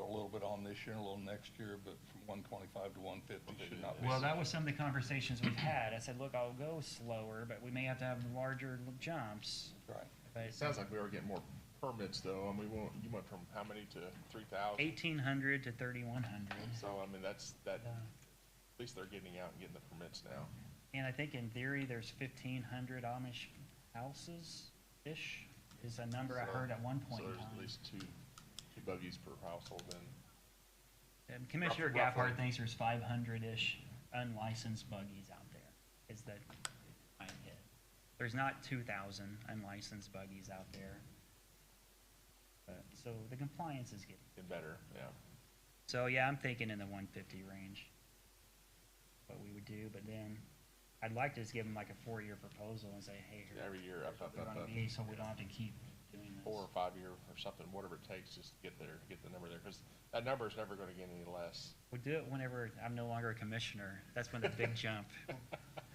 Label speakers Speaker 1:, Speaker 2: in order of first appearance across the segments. Speaker 1: on this year and a little next year, but from one twenty-five to one fifty should not be.
Speaker 2: Well, that was some of the conversations we've had. I said, look, I'll go slower, but we may have to have larger l- jumps.
Speaker 1: Right.
Speaker 2: But
Speaker 3: It sounds like we are getting more permits though, and we won't, you went from how many to three thousand?
Speaker 2: eighteen hundred to thirty-one hundred.
Speaker 3: So, I mean, that's, that, at least they're getting out and getting the permits now.
Speaker 2: And I think in theory, there's fifteen hundred Amish houses-ish is a number I
Speaker 3: So-
Speaker 2: heard at one point
Speaker 3: So
Speaker 2: in
Speaker 3: there's at
Speaker 2: time.
Speaker 3: least two, two buggies per household then.
Speaker 2: And Commissioner
Speaker 3: rough- roughly.
Speaker 2: Gaffard thinks there's five hundred-ish unlicensed buggies out there, is that I hit. There's not two thousand unlicensed buggies out there. But, so the compliance is getting,
Speaker 3: and better, yeah.
Speaker 2: so yeah, I'm thinking in the one fifty range. What we would do, but then I'd like to just give them like a four-year proposal and say, hey, here.
Speaker 3: Every year up, up,
Speaker 2: we
Speaker 3: up,
Speaker 2: want
Speaker 3: up,
Speaker 2: to be, so we don't have to keep doing this.
Speaker 3: four or five year or something, whatever it takes, just to get there, get the number there, cause that number's never gonna get any less.
Speaker 2: We'll do it whenever I'm no longer a commissioner. That's when the big jump.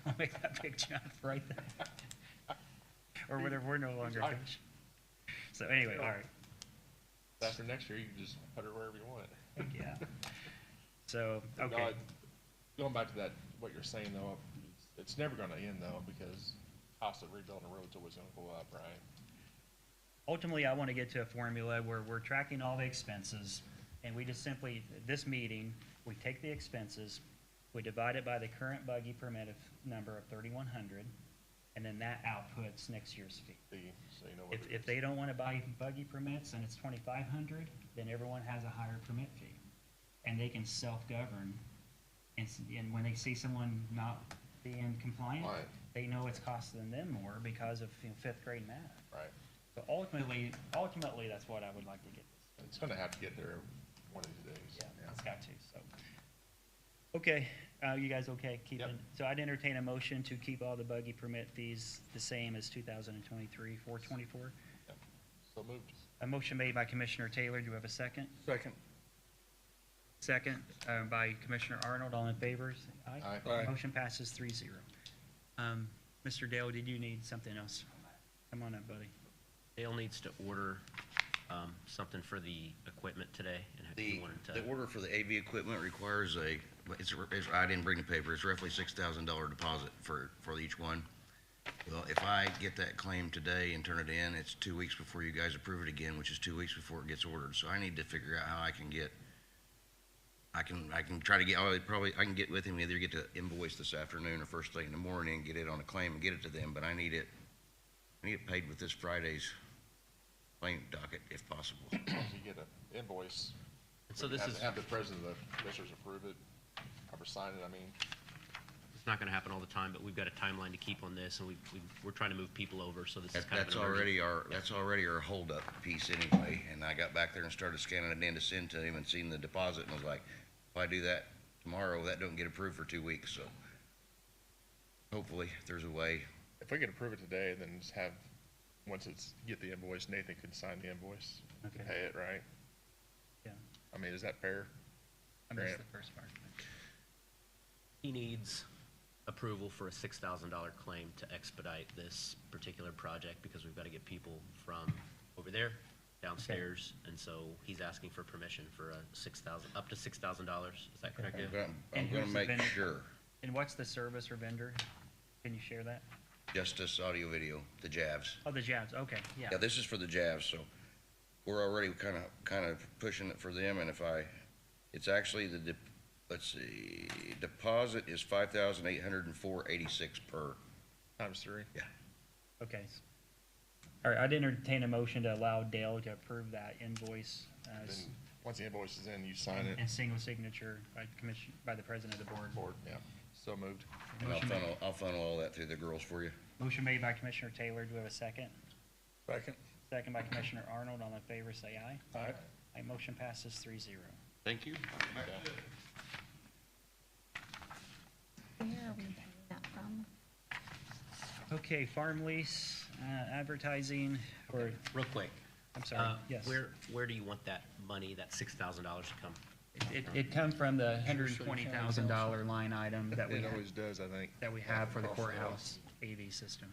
Speaker 2: I'll make that big jump right then. Or whenever we're no longer a
Speaker 3: Alright.
Speaker 2: commissioner. So anyway, all right,
Speaker 3: After next year, you can just put it wherever you want.
Speaker 2: yeah. So,
Speaker 3: No,
Speaker 2: okay,
Speaker 3: I- Going back to that, what you're saying though, it's never gonna end though, because cost of rebuilding a road's always gonna go up, right?
Speaker 2: ultimately, I want to get to a formula where we're tracking all the expenses, and we just simply, this meeting, we take the expenses, we divide it by the current buggy permit of, number of thirty-one hundred, and then that outputs next year's fee.
Speaker 3: So you- so you know what
Speaker 2: If,
Speaker 3: it
Speaker 2: if
Speaker 3: is.
Speaker 2: they don't wanna buy buggy permits and it's twenty-five hundred, then everyone has a higher permit fee. And they can self-govern, and, s- and when they see someone not being compliant,
Speaker 3: Right.
Speaker 2: they know it's costing them more because of, you know, fifth grade math.
Speaker 3: Right,
Speaker 2: But ultimately, ultimately, that's what I would like to get,
Speaker 3: it's gonna have to get there one of these days.
Speaker 2: yeah, it's got to, so. Okay, uh, you guys okay keeping,
Speaker 3: Yep.
Speaker 2: so I'd entertain a motion to keep all the buggy permit fees the same as two thousand and twenty-three, four twenty-four?
Speaker 3: Yep. So moved.
Speaker 2: A motion made by Commissioner Taylor, do we have a second?
Speaker 1: Second.
Speaker 2: Second, uh, by Commissioner Arnold, all in favor? say Aye.
Speaker 3: Aye. Aye.
Speaker 2: Motion passes three zero. Um, Mr. Dale, did you need something else? Come on up, buddy.
Speaker 4: Dale needs to order um, something for the equipment today, and if
Speaker 5: The,
Speaker 4: you wanted
Speaker 5: the
Speaker 4: to,
Speaker 5: order for the AV equipment requires a, it's, it's, I didn't bring the paper, it's roughly six thousand dollar deposit for, for each one. Well, if I get that claim today and turn it in, it's two weeks before you guys approve it again, which is two weeks before it gets ordered, so I need to figure out how I can get, I can, I can try to get, I probably, I can get with him, either get the invoice this afternoon or first thing in the morning, get it on a claim and get it to them, but I need it, I need it paid with this Friday's claim docket if possible.
Speaker 3: As long as you get an invoice.
Speaker 4: and so
Speaker 3: we
Speaker 4: this
Speaker 3: have-
Speaker 4: is,
Speaker 3: Have the president of the commissioners approve it, or sign it, I mean,
Speaker 4: it's not gonna happen all the time, but we've got a timeline to keep on this, and we, we- we're trying to move people over, so this is
Speaker 5: That,
Speaker 4: kind of an
Speaker 5: that's
Speaker 4: emergency.
Speaker 5: already our, that's already our holdup piece anyway, and I got back there and started scanning it in to send to him and seen the deposit and was like, if I do that tomorrow, that don't get approved for two weeks, so. Hopefully, if there's a way,
Speaker 3: if we could approve it today, then just have, once it's, get the invoice, Nathan can sign the invoice, and
Speaker 2: Okay.
Speaker 3: pay it, right?
Speaker 2: Yeah,
Speaker 3: I mean, is that fair?
Speaker 2: I missed
Speaker 3: Grant.
Speaker 2: the first part.
Speaker 4: He needs approval for a six thousand dollar claim to expedite this particular project, because we've got to get people from over there downstairs, and so he's asking for permission for a six thousand, up to six thousand dollars, is that correct?
Speaker 5: I'm
Speaker 4: Dale?
Speaker 5: gonna, I'm
Speaker 2: And
Speaker 5: gonna
Speaker 2: who's the
Speaker 5: make
Speaker 2: vendor?
Speaker 5: sure,
Speaker 2: And what's the service or vendor? Can you share that?
Speaker 5: Justice Audio Video, the Javs.
Speaker 2: Oh, the Jabs, okay, yeah.
Speaker 5: Yeah, this is for the Javs, so we're already kind of, kind of pushing it for them, and if I, it's actually the, dep- let's see, deposit is five thousand eight hundred and four eighty-six per.
Speaker 3: Times three?
Speaker 5: Yeah.
Speaker 2: Okay. All right, I'd entertain a motion to allow Dale to approve that invoice, uh, s-
Speaker 3: Then, once the invoice is in, you sign it,
Speaker 2: and single signature by commission, by the president of the board.
Speaker 3: board, yeah, so moved.
Speaker 5: And I'll
Speaker 2: Motion made-
Speaker 5: funnel, I'll funnel all that through the girls for you.
Speaker 2: Motion made by Commissioner Taylor, do we have a second?
Speaker 1: Second.
Speaker 2: Second by Commissioner Arnold, all in favor, say aye.
Speaker 1: All right.
Speaker 2: Aye, motion passes three zero.
Speaker 3: Thank you.
Speaker 6: Where are we paying that from?
Speaker 2: Okay, farm lease, uh, advertising, or,
Speaker 4: Real quick.
Speaker 2: I'm
Speaker 4: uh,
Speaker 2: sorry, yes.
Speaker 4: Where, where do you want that money, that six thousand dollars to come?
Speaker 2: It, it come from the hundred and twenty thousand dollar line item that we,
Speaker 3: It always does, I think.
Speaker 2: that we have for the courthouse AV system.